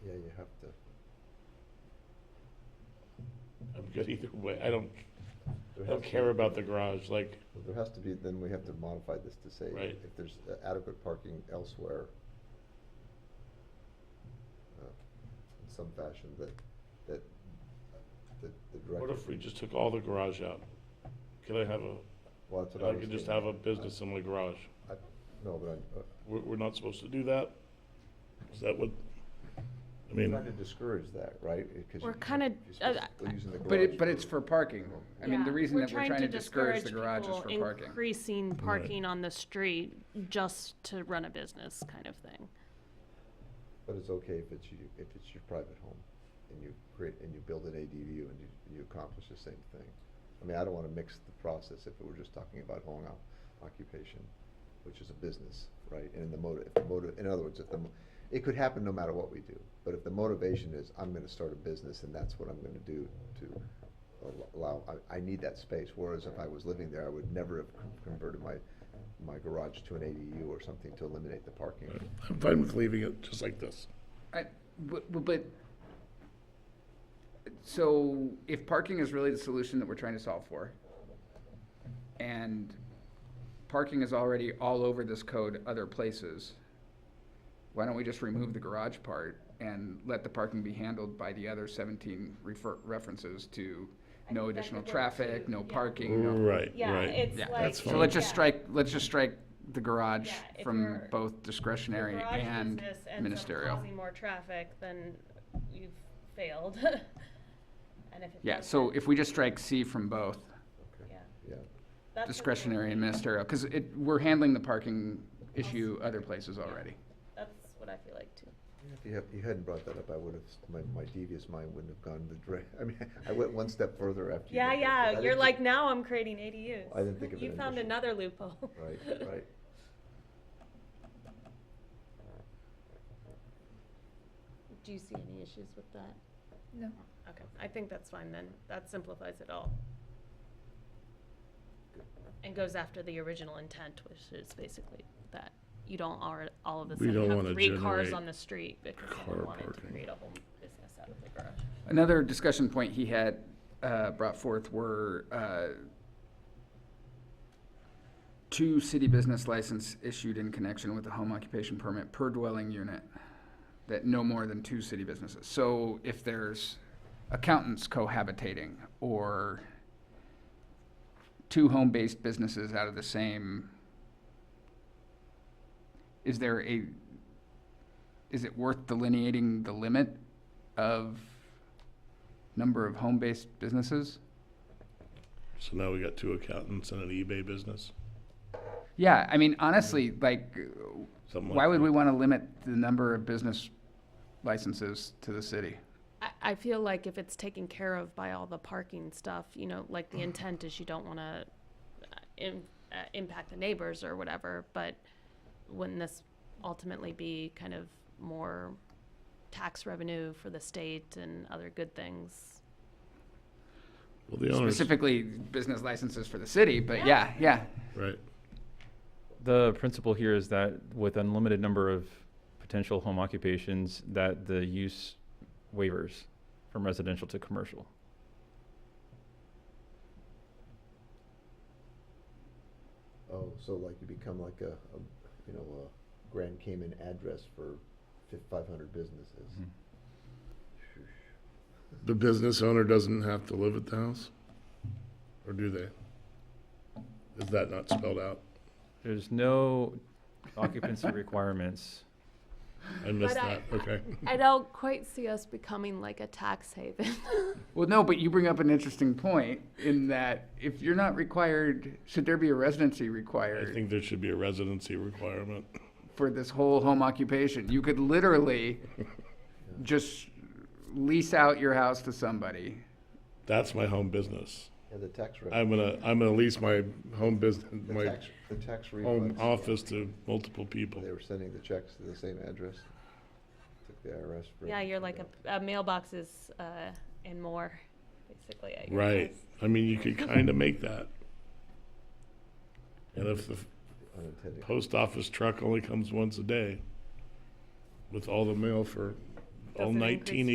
good either way. I don't, I don't care about the garage, like, Well, There has to be, then we have to modify this to say, Right. if there's adequate parking elsewhere, uh, in some fashion, that, that, that the what director. if we just took all the garage out? Could I have a, Well, that's what I was could just thinking. have a business in my garage? I- No, but I'm, uh, We're, we're not supposed to do that? Is that what, I I'm mean, trying to discourage that, right? 'Cause We're you- kinda- uh, you're supposed to go using the But garage it, but it's for- for parking. I mean, the Yeah, reason that we're trying to discourage the garage is people for parking. Increasing parking on the street just to run a business kind of thing. But it's okay if it's you, if it's your private home and you create, and you build an ADU and you, and you accomplish the same thing. I mean, I don't wanna mix the process if we're just talking about home o- occupation, which is a business, right? And the motive, if the motive, in other words, if the, mo- it could happen no matter what we do. But if the motivation is, I'm gonna start a business and that's what I'm gonna do to al- allow, I, I need that space. Whereas if I was living there, I would never have con- converted my, my garage to an ADU or something to eliminate the parking. I'm fine with leaving it just like this. I, but, but- but, so if parking is really the solution that we're trying to solve for, and parking is already all over this code other places, why don't we just remove the garage part and let the parking be handled by the other seventeen refer, references to no think that additional could work traffic, too, no yeah. parking, no? Right, Yeah, right. it's Yeah. like. That's So let's just yeah. strike, let's just strike the garage Yeah, if from you're- both discretionary Garage and business ends up ministerial. Causing more traffic, then you've failed. And if it Yeah, so doesn't, if we just strike C from both, Okay, yeah. yeah. That's what we- discretionary and ministerial, because it, we're handling the parking issue other places already. That's what I feel like too. If you, have, you hadn't brought that up, I would have, my, my devious mind wouldn't have gone the direct, I mean, I went one step further after you. Yeah, made that, but I yeah, didn't you're think- like, now I'm creating ADUs. I didn't think of it You in found addition. another loophole. Right, right. Do you see any issues with that? No. Okay, I think that's fine then. That simplifies it all. And goes after the original intent, which is basically that you don't all, all of a We don't sudden wanna have three cars generate on the street because car someone wanted to parking. create a whole business out of the garage. Another discussion point he had, uh, brought forth were, uh, two city business license issued in connection with a home occupation permit per dwelling unit, that no more than two city businesses. So if there's accountants cohabitating, or two home-based businesses out of the same, is there a, is it worth delineating the limit of number of home-based businesses? So now we got two accountants and an eBay business, Yeah, I mean, honestly, like, something like that. why would we want to limit the number of business licenses to the city? I, I feel like if it's taken care of by all the parking stuff, you know, like the intent is you don't want to im- uh, impact the neighbors or whatever, but wouldn't this ultimately be kind of more tax revenue for the state and other good things? Well, the owners, Specifically, business licenses for the city, but yeah, yeah. right. The principle here is that with unlimited number of potential home occupations, that the use waivers from residential to commercial. Oh, so like you become like a, a, you know, a Grand Cayman address for five hundred businesses. Mm-hmm. The business owner doesn't have to live at the house? Or do they? Is that not spelled out? There's no occupancy requirements. I missed But I- that, okay. I don't quite see us becoming like a tax haven. Well, no, but you bring up an interesting point in that if you're not required, should there be a residency I required think there should be a residency requirement. for this whole home occupation? You could literally just lease out your house to somebody. That's my home business. Yeah, the tax rate, I'm gonna, I'm gonna lease my home business, the my tax, the tax home refunds, office to multiple people. they were sending the checks to the same address. Took the IRS for. Yeah, you're like for a, a mailboxes, uh, and more, basically, I guess. Right, I mean, you could kinda make that. And if the the Unintended. post office truck only comes once a day with all the mail for all Doesn't increase nineteen